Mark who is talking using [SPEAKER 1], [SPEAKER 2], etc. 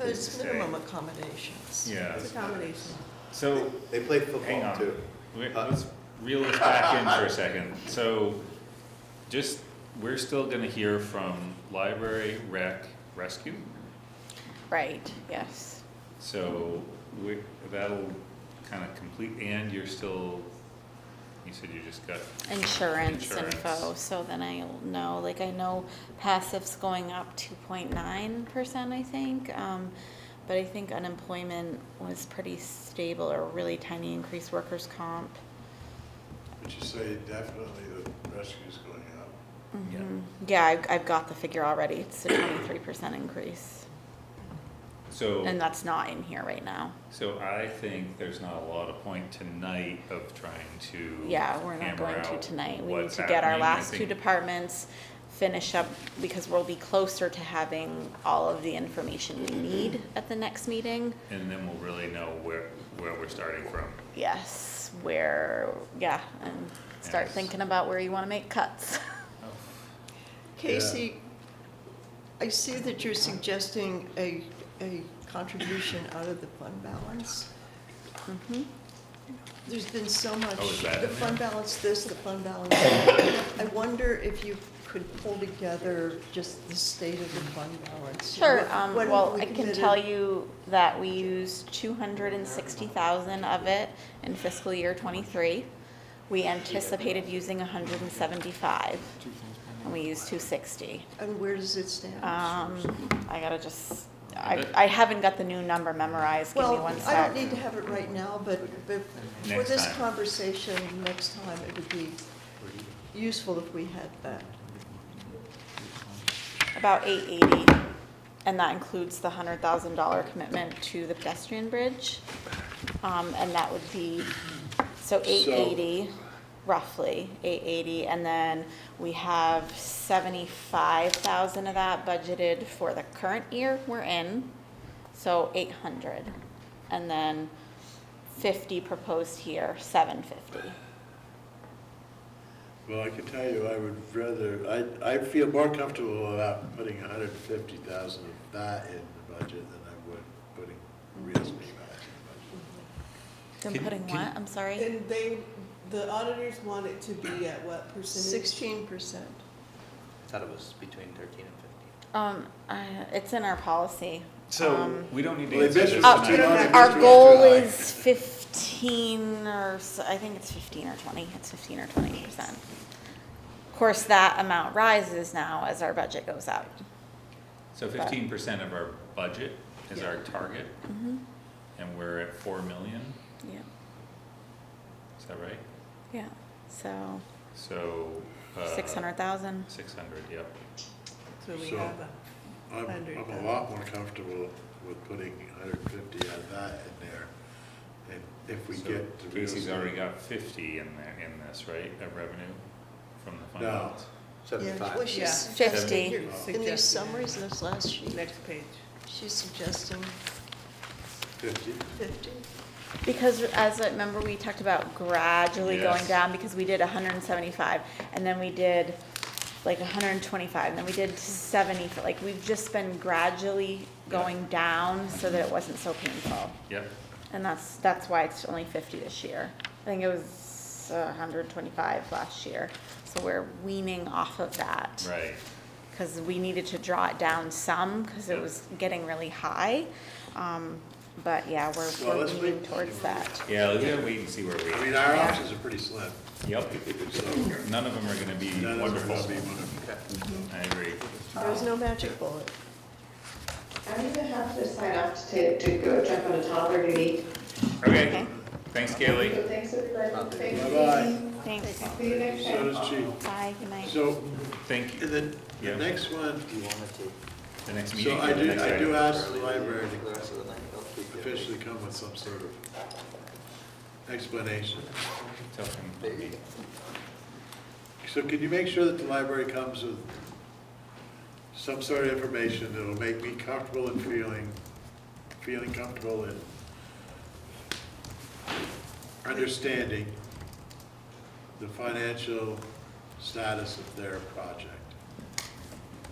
[SPEAKER 1] it's
[SPEAKER 2] stay.
[SPEAKER 1] minimum accommodations.
[SPEAKER 2] Yeah,
[SPEAKER 3] It's a combination.
[SPEAKER 2] so,
[SPEAKER 3] They play
[SPEAKER 2] hang
[SPEAKER 3] football
[SPEAKER 2] on,
[SPEAKER 3] too.
[SPEAKER 2] Wait,
[SPEAKER 3] Uh,
[SPEAKER 2] let's reel this back in for a second, so, just, we're still gonna hear from library, rec, rescue?
[SPEAKER 4] Right, yes.
[SPEAKER 2] So, we, that'll kinda complete, and you're still, you said you just got,
[SPEAKER 4] Insurance
[SPEAKER 2] Insurance.
[SPEAKER 4] info, so then I'll know, like I know passive's going up two point nine percent, I think. Um, but I think unemployment was pretty stable or really tiny increase workers' comp.
[SPEAKER 5] But you say definitely the rescue's going up.
[SPEAKER 2] Yeah.
[SPEAKER 4] Mhm. Yeah, I've, I've got the figure already, it's a twenty-three percent increase,
[SPEAKER 2] so.
[SPEAKER 4] and that's not in here right now.
[SPEAKER 2] So I think there's not a lot of point tonight of trying to.
[SPEAKER 4] Yeah, we're not
[SPEAKER 2] hammer
[SPEAKER 4] going to
[SPEAKER 2] out
[SPEAKER 4] tonight. We need
[SPEAKER 2] what's
[SPEAKER 4] to get our
[SPEAKER 2] happening. I
[SPEAKER 4] last two
[SPEAKER 2] think-
[SPEAKER 4] departments, finish up, because we'll be closer to having all of the information we need at the next meeting.
[SPEAKER 2] And then we'll really know where, where we're starting from.
[SPEAKER 4] Yes, where, yeah, and start
[SPEAKER 2] Yes.
[SPEAKER 4] thinking about where you wanna make cuts.
[SPEAKER 1] Casey, I see that you're suggesting a, a contribution out of the fund balance. Mm-hmm.
[SPEAKER 4] Mhm.
[SPEAKER 1] There's been so much,
[SPEAKER 2] Oh, is that
[SPEAKER 1] the
[SPEAKER 2] in
[SPEAKER 1] fund balance this, the fund balance that. I wonder if you could pull together just the state of the fund balance. you know,
[SPEAKER 4] Sure,
[SPEAKER 1] what-
[SPEAKER 4] um,
[SPEAKER 1] what have
[SPEAKER 4] well,
[SPEAKER 1] we
[SPEAKER 4] I can
[SPEAKER 1] committed?
[SPEAKER 4] tell you that we used two hundred and sixty thousand of it in fiscal year twenty-three. We anticipated using hundred and seventy-five, and we used two sixty.
[SPEAKER 1] And where does it stand?
[SPEAKER 4] Um, I gotta just, I, I haven't got the new number memorized, give me
[SPEAKER 1] Well,
[SPEAKER 4] one
[SPEAKER 1] I don't
[SPEAKER 4] sec.
[SPEAKER 1] need to have it right now, but, but for
[SPEAKER 2] Next
[SPEAKER 1] this
[SPEAKER 2] time.
[SPEAKER 1] conversation next time, it would be useful if we had that.
[SPEAKER 4] About eight eighty, and that includes the hundred thousand dollar commitment to the pedestrian bridge. Um, and that would be, so eight eighty, roughly, eight eighty, and then we have seventy-five thousand of that budgeted for the current year we're in, so eight hundred. And then fifty proposed here, seven fifty.
[SPEAKER 5] Well, I can tell you, I would rather, I, I feel more comfortable about putting a hundred and fifty thousand of that in the budget than I would putting real estate back
[SPEAKER 4] Then
[SPEAKER 2] Can-
[SPEAKER 4] putting
[SPEAKER 2] can-
[SPEAKER 4] what, I'm sorry?
[SPEAKER 6] And they, the auditors want it to be at what percentage?
[SPEAKER 1] Sixteen percent.
[SPEAKER 7] Thought it was between thirteen and fifteen.
[SPEAKER 4] Um, I, it's in our policy.
[SPEAKER 2] So,
[SPEAKER 4] Um,
[SPEAKER 2] we don't need to
[SPEAKER 5] Well,
[SPEAKER 2] answer
[SPEAKER 5] this
[SPEAKER 2] this
[SPEAKER 5] is
[SPEAKER 4] Uh,
[SPEAKER 5] too long.
[SPEAKER 2] tonight.
[SPEAKER 4] Our
[SPEAKER 5] July.
[SPEAKER 4] goal is fifteen or, s- I think it's fifteen or twenty, it's fifteen or twenty percent. Of course, that amount rises now as our budget goes up.
[SPEAKER 2] So fifteen percent of our budget is our target,
[SPEAKER 4] Mm-hmm,
[SPEAKER 2] and we're at four million,
[SPEAKER 4] yeah,
[SPEAKER 2] is that right?
[SPEAKER 4] yeah, so,
[SPEAKER 2] So. uh,
[SPEAKER 4] six hundred thousand.
[SPEAKER 2] Six hundred, yep.
[SPEAKER 6] So we
[SPEAKER 5] So-
[SPEAKER 6] have a,
[SPEAKER 5] in budget. I'm, I'm a lot more comfortable with putting a hundred and fifty of that in there. And if we
[SPEAKER 2] So
[SPEAKER 5] get to real estate.
[SPEAKER 2] Casey's already got fifty in there, in this, right, of revenue from the fund
[SPEAKER 5] No.
[SPEAKER 2] balance?
[SPEAKER 1] Yeah, well,
[SPEAKER 7] Seventy-five.
[SPEAKER 1] she's
[SPEAKER 4] Yeah.
[SPEAKER 1] suggesting-
[SPEAKER 6] You're
[SPEAKER 1] In
[SPEAKER 6] suggesting
[SPEAKER 1] these summaries, in this last
[SPEAKER 6] that.
[SPEAKER 1] sheet,
[SPEAKER 6] Next page.
[SPEAKER 1] she's suggesting
[SPEAKER 5] Fifty,
[SPEAKER 1] fifty.
[SPEAKER 4] Because as, I remember, we talked about gradually going
[SPEAKER 2] Yes.
[SPEAKER 4] down, because we did hundred and seventy-five, and then we did like hundred and twenty-five, and then we did seventy, like, we've just been gradually going down so that it wasn't so painful.
[SPEAKER 2] Yep,
[SPEAKER 4] And that's, that's why it's only fifty this year. I think it was uh, hundred and twenty-five last year, so we're weaning off of that.
[SPEAKER 2] right.
[SPEAKER 4] Cause we needed to draw it down some, cause it
[SPEAKER 2] Yeah.
[SPEAKER 4] was getting really high, um, but yeah, we're,
[SPEAKER 5] Well,
[SPEAKER 4] we're
[SPEAKER 5] let's
[SPEAKER 4] leaning
[SPEAKER 5] wait.
[SPEAKER 4] towards that.
[SPEAKER 2] Yeah, let's gotta wait and see where we
[SPEAKER 5] I
[SPEAKER 2] are.
[SPEAKER 5] mean, our options are pretty slim,
[SPEAKER 2] Yep,
[SPEAKER 5] so.
[SPEAKER 2] none of them are gonna be
[SPEAKER 5] none of them are
[SPEAKER 2] wonderful.
[SPEAKER 5] gonna be wonderful.
[SPEAKER 2] I agree.
[SPEAKER 1] There's no magic bullet.
[SPEAKER 8] I'm gonna have to sign off to, to go jump on a toddler duty.
[SPEAKER 2] Okay,
[SPEAKER 4] Okay.
[SPEAKER 2] thanks,
[SPEAKER 8] So
[SPEAKER 2] Kaylee.
[SPEAKER 8] thanks, everybody. Thanks,
[SPEAKER 5] Bye-bye.
[SPEAKER 4] Thanks.
[SPEAKER 8] See you next
[SPEAKER 5] So
[SPEAKER 8] time.
[SPEAKER 5] does Chief.
[SPEAKER 4] Bye, good night.
[SPEAKER 5] So,
[SPEAKER 2] Thank you.
[SPEAKER 5] and then,
[SPEAKER 2] Yeah.
[SPEAKER 5] the next one,
[SPEAKER 7] Do you want to take
[SPEAKER 2] The next meeting.
[SPEAKER 5] so I
[SPEAKER 2] or the
[SPEAKER 5] do,
[SPEAKER 2] next
[SPEAKER 5] I do
[SPEAKER 2] item?
[SPEAKER 5] ask the
[SPEAKER 7] early
[SPEAKER 5] library
[SPEAKER 7] leave the rest of the night? I'll keep
[SPEAKER 5] to
[SPEAKER 7] it.
[SPEAKER 5] officially come with some sort of explanation.
[SPEAKER 2] Tell him to be-
[SPEAKER 5] So can you make sure that the library comes with some sort of information that'll make me comfortable in feeling, feeling comfortable in understanding the financial status of their project?